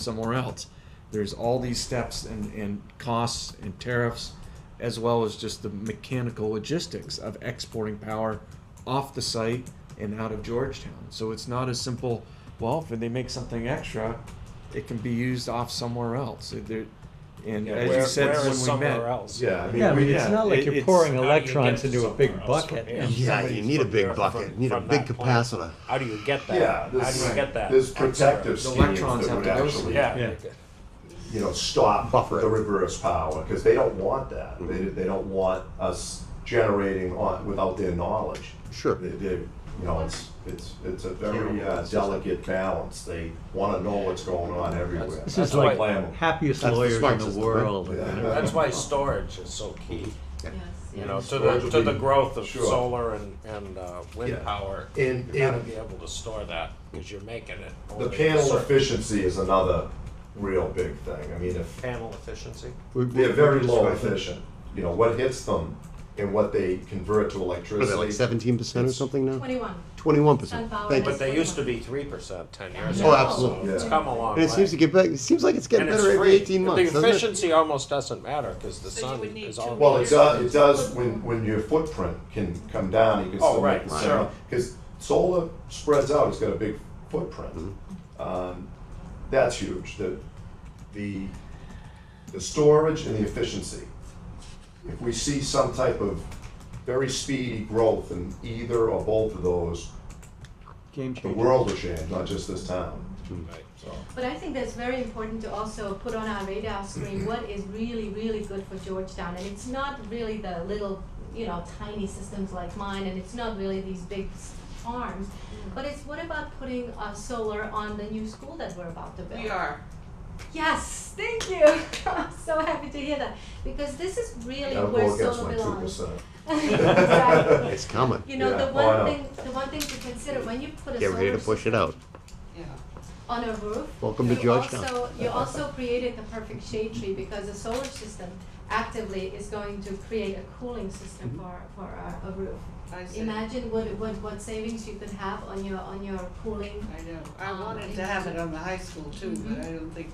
somewhere else. There's all these steps and, and costs and tariffs, as well as just the mechanical logistics of exporting power off the site and out of Georgetown. So it's not as simple, well, if they make something extra, it can be used off somewhere else. It- there- And Yeah, as where- you said where when is we met, somewhere else? Yeah, I mean, Yeah, I we- mean, it's yeah, not like it- you're it's- pouring How do you electrons get to into a big somewhere else from bucket. here? and- Yeah, you Somebody's need a from big there, bucket. from- You need a from big that point. capacitor. How do you get that? yeah, How do there's, you get that? there's extra? protective The schemes electrons that have would to go actually, Yeah. Yeah. you know, stop Buffer it. the reverse power, because they don't want that. They, they don't want us generating on, without their knowledge. Sure. They, they, you know, it's, it's, it's a very uh, delicate balance. They wanna know what's going on everywhere. This is That's why- like Flammable. happiest That's the lawyers in smart the system, world. right? you know. That's why storage is so key, Yes, you know, yes. to the, to the growth of Sure. solar and, and uh, wind Yeah. power. And- You gotta and- be able to store that, because you're making it. The only a panel certain- efficiency is another real big thing. I mean, if Panel efficiency? We- we- they're very low efficient, you know, what hits them and what they convert to What are they, like electricity. seventeen percent or something now? Twenty-one. Twenty-one percent. Sunflower Thank you. But they used to be three percent ten years ago. Oh, so absolutely. It's Yeah. come a long And way. it seems to get back, it seems like it's getting And it's better every free. eighteen months, The doesn't it? efficiency almost doesn't matter, because the So you sun would need is two all. Well, it does, it does when, when your footprint can come down, you can Oh, still make right, the sure. same. Because solar spreads out, it's got a big footprint. Mm-hmm. Um, That's huge, the, the, the storage and the efficiency. If we see some type of very speedy growth in either or both of those, Game the changer. world will change, not just this town. Right. So, But I think that's very important to also put on our radar screen Mm-hmm. what is really, really good for Georgetown. And it's not really the little, you know, tiny systems like mine, and it's not really these big s- farms. Mm. But it's what about putting uh, solar on the new school that we're about to build? We are. Yes, thank you. I'm so happy to hear that because this is really That'll where go against solar my two belongs. percent. Exactly. It's coming. You know, Yeah. the Oh, I one know. thing, the one thing to consider, when you put a Get ready solar to push it system out. Yeah. on a roof. Welcome to you Georgetown. also- You also created the perfect shade tree because the solar system actively is going to create a cooling Mm-hmm. system for, for a, a roof. I see. Imagine what, what, what savings you could have on your, on your cooling. I know. I Um, wanted to have it on the high school too, but I don't think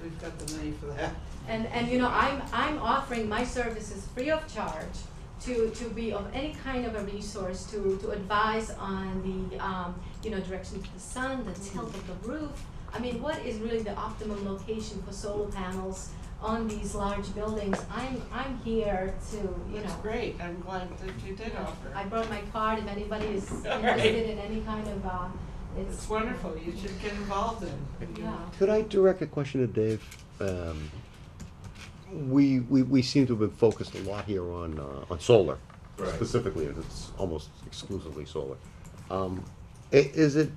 we've got the money for that. And, and you know, I'm, I'm offering my services free of charge to, to be of any kind of a resource to, to advise on the, um, you know, direction of the sun, the tilt of the roof. I mean, what is really the optimum location for solar panels on these large buildings? I'm, I'm here to, you That's know. great. I'm glad that you did I offer. brought my card if anybody is All interested right. in any kind of, uh, it's. It's wonderful. You should get involved in. you Yeah. know. Could I direct a question to Dave? Um, We, we, we seem to have been focused a lot here on, uh, on solar, Right. specifically, and it's almost exclusively solar. Um, i- Is it,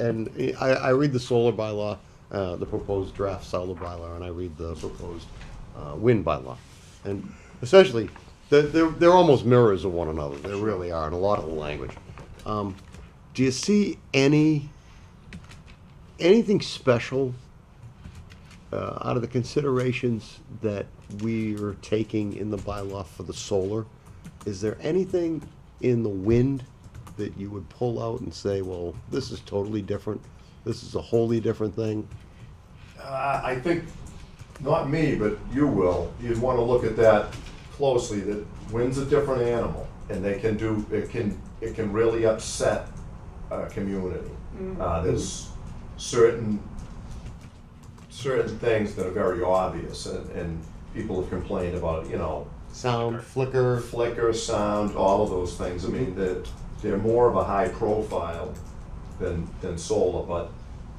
and I, I read the solar bylaw, uh, the proposed draft solar bylaw, and I read the proposed uh, wind bylaw. And essentially, they're, they're they're almost mirrors of one another, they really are, in a lot of the language. Um, Do you see any, anything special uh, out of the considerations that we are taking in the bylaw for the solar, is there anything in the wind that you would pull out and say, well, this is totally different, this is a wholly different thing? Uh, I think, not me, but you will, you'd wanna look at that closely, that wind's a different animal, and they can do, it can, it can really upset a community. Uh, there's certain, certain things that are very obvious, and, and people have complained about, you know, Sound, flicker, flicker, sound, all of those things, I mean, they're, they're more of a high profile than, than solar, but,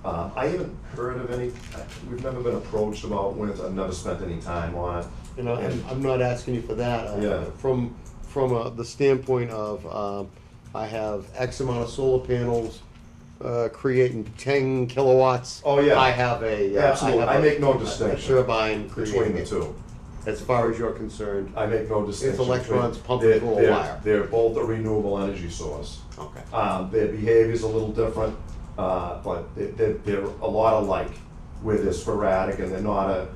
uh, I haven't heard of any, I- we've never been approached about winds, I've never spent any time on it. you know, I'm, And- I'm not asking you for that. uh, Yeah. From, from uh, the standpoint of, um, I have X amount of solar panels, uh, creating ten kilowatts. Oh, yeah. I have a. uh, Absolutely. have I a- make no a- a distinction Turbine Between creating the it. two, As far as you're concerned, I make no distinction. electrons between- pumping they're- through a they're- wire. They're both a renewable energy source. okay. Um, their behavior's a little different, uh, but they- they're, they're a lot alike, where they're sporadic and they're not a,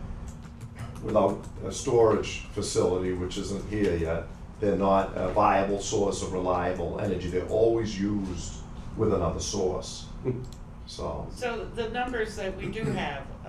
without a storage facility, which isn't here yet, they're not a viable source of reliable energy. They're always used with another source, so. So the numbers that we do have